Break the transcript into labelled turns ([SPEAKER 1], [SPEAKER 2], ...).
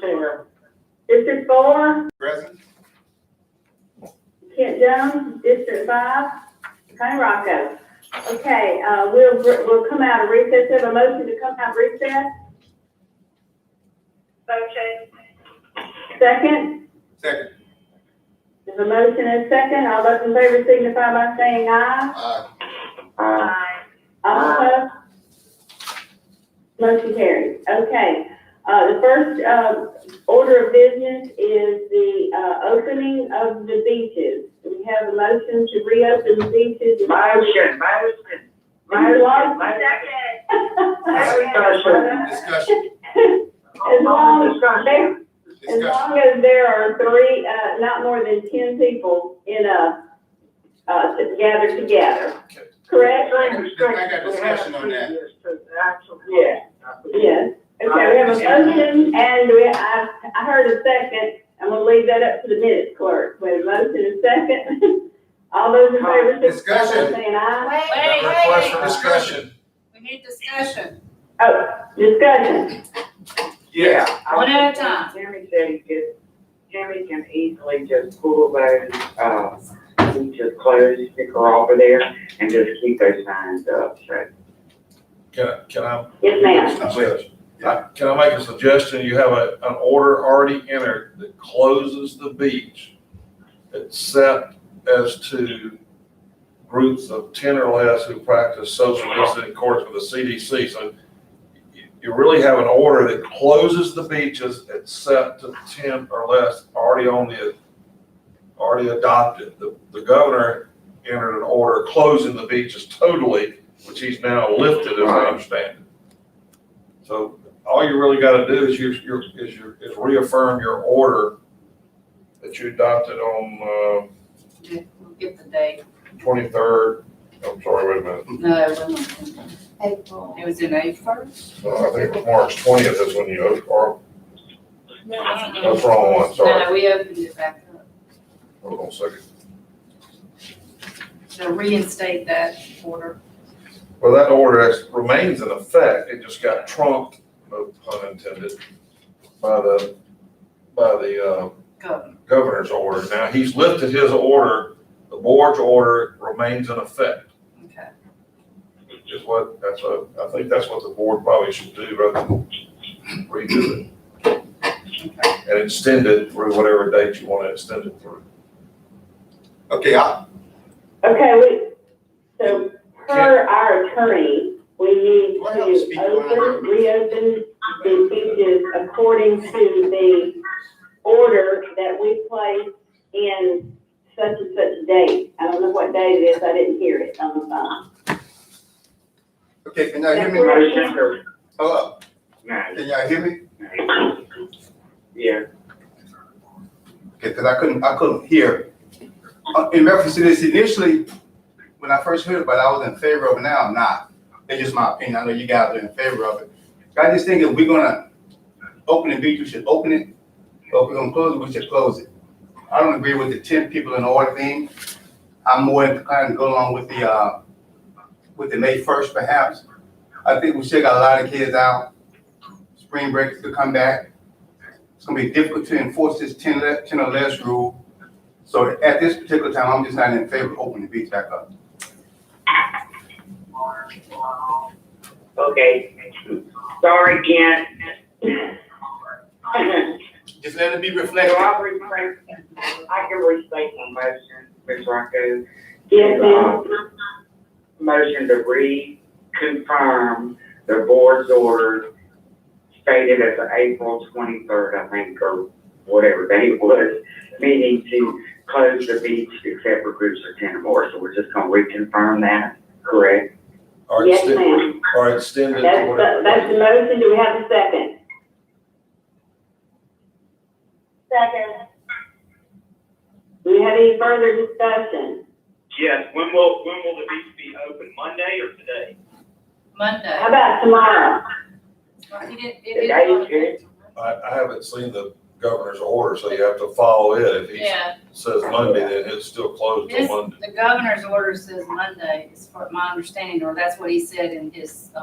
[SPEAKER 1] Chair. District four,
[SPEAKER 2] Present.
[SPEAKER 1] Kent Jones, District five, Tony Rocco. Okay, uh, we'll, we'll come out of recess, have a motion to come out of recess,
[SPEAKER 3] Motion.
[SPEAKER 1] second.
[SPEAKER 2] Second.
[SPEAKER 1] There's a motion and a second, all those in favor signify by saying aye.
[SPEAKER 2] Aye.
[SPEAKER 3] Aye.
[SPEAKER 1] All opposed? Motion carries. Okay, uh, the first, uh, order of business is the, uh, opening of the beaches. We have a motion to reopen the beaches.
[SPEAKER 4] Motion, motion.
[SPEAKER 1] Myers Law?
[SPEAKER 3] Second.
[SPEAKER 4] Discussion.
[SPEAKER 2] Uh, Discussion.
[SPEAKER 1] As long as
[SPEAKER 4] Discussion.
[SPEAKER 1] there, as
[SPEAKER 2] Discussion.
[SPEAKER 1] long as there are three, uh, not more than ten people in a, uh, to gather together, correct?
[SPEAKER 2] I got discussion on that.
[SPEAKER 4] Yeah.
[SPEAKER 1] Yes. Okay, we have a motion and we, I, I heard a second. I'm gonna leave that up to the minutes clerk. We have a motion and a second. All those in favor, signify by
[SPEAKER 2] Discussion.
[SPEAKER 1] saying aye.
[SPEAKER 5] Wait,
[SPEAKER 2] Request for
[SPEAKER 5] wait.
[SPEAKER 2] discussion.
[SPEAKER 5] We need discussion,
[SPEAKER 1] Oh, Discussion.
[SPEAKER 2] Yes.
[SPEAKER 4] I
[SPEAKER 5] one at a
[SPEAKER 4] was-
[SPEAKER 5] time.
[SPEAKER 4] Jimmy said he could, Jimmy can easily just pull those, uh, he just close the sticker over there and just keep those signs up, so.
[SPEAKER 6] Can, I- can I,
[SPEAKER 1] Yes, ma'am.
[SPEAKER 2] Judge.
[SPEAKER 6] I- can I make a suggestion? You have a, an order already entered that closes the beach except as to groups of ten or less who practice social distancing in accordance with the CDC. So you- you really have an order that closes the beaches except to ten or less already on the, already adopted. The, the governor entered an order closing the beaches totally, which he's now lifted, as I understand it. So all you really gotta do is you, you, is your, is reaffirm your order that you adopted on,
[SPEAKER 5] We'll get the date.
[SPEAKER 6] uh, twenty-third, I'm sorry, wait a minute,
[SPEAKER 5] No, it wasn't. April. It was in April.
[SPEAKER 6] No, Uh, I think it was March twentieth is when you, op- or, that's
[SPEAKER 5] No,
[SPEAKER 6] the wrong one, sorry,
[SPEAKER 5] no, we opened it back up.
[SPEAKER 6] hold on a second.
[SPEAKER 5] So reinstate that order.
[SPEAKER 6] Well, that order is- remains in effect, it just got trumped, no pun intended, by the, by the, uh,
[SPEAKER 5] Go.
[SPEAKER 6] governor's order. Now, he's lifted his order, the board's order remains in effect.
[SPEAKER 5] Okay.
[SPEAKER 6] is what, that's what, I think that's what the board probably should do, rather than redo it. And extend it through whatever date you want to extend it through.
[SPEAKER 2] Okay, I,
[SPEAKER 1] Okay, we, so per our attorney, we need
[SPEAKER 2] Why don't you speak
[SPEAKER 1] to open,
[SPEAKER 2] louder?
[SPEAKER 1] reopen the beaches according to the order that we placed in such and such date. I don't know what date it is, I didn't hear it on the phone.
[SPEAKER 2] okay, can y'all hear me?
[SPEAKER 1] That's
[SPEAKER 4] Motion.
[SPEAKER 2] Hello,
[SPEAKER 4] No,
[SPEAKER 2] can y'all hear me?
[SPEAKER 4] no. Yeah,
[SPEAKER 2] Okay, because I couldn't, I couldn't hear. Uh, In reference to this, initially, when I first heard about it, I was in favor of it, now I'm not. That's just my opinion, I know you guys are in favor of it. But I just think if we're gonna open the beach, we should open it, or if we're gonna close it, we should close it. I don't agree with the ten people in order thing. I'm more inclined to go along with the, uh, with the May first perhaps. I think we still got a lot of kids out, spring break to come back. It's gonna be difficult to enforce this ten le- 10 or less rule. So at this particular time, I'm just not in favor of opening the beach back up.
[SPEAKER 4] okay. Sorry, Kent.
[SPEAKER 2] Just let it be
[SPEAKER 4] So
[SPEAKER 2] reflected.
[SPEAKER 4] I'll rephrase, I can restate my motion, Ms. Rocco.
[SPEAKER 1] Yes,
[SPEAKER 4] Uh,
[SPEAKER 1] ma'am.
[SPEAKER 4] Motion to reconfirm the board's order stated as of April twenty-third, I think, or whatever day it was, meaning to close the beach except for groups of ten or more, so we're just gonna reconfirm that, correct?
[SPEAKER 6] Or
[SPEAKER 1] Yes,
[SPEAKER 6] extend-
[SPEAKER 1] ma'am.
[SPEAKER 6] Or extend it to
[SPEAKER 1] That's, the-
[SPEAKER 6] whatever.
[SPEAKER 1] that's the motion, do we have a second?
[SPEAKER 3] Second.
[SPEAKER 1] Do we have any further discussion?
[SPEAKER 7] Yes, when will, when will the beach be open, Monday or today?
[SPEAKER 1] How
[SPEAKER 5] Monday.
[SPEAKER 1] about tomorrow?
[SPEAKER 5] He didn't- it
[SPEAKER 4] The date is
[SPEAKER 5] didn't-
[SPEAKER 6] I, I haven't seen the governor's order, so you have to follow it. If he
[SPEAKER 5] Yeah,
[SPEAKER 6] says Monday, then it's still closed till
[SPEAKER 5] This-
[SPEAKER 6] Monday.
[SPEAKER 5] the governor's order says Monday, is for my understanding, or that's what he said in his, uh,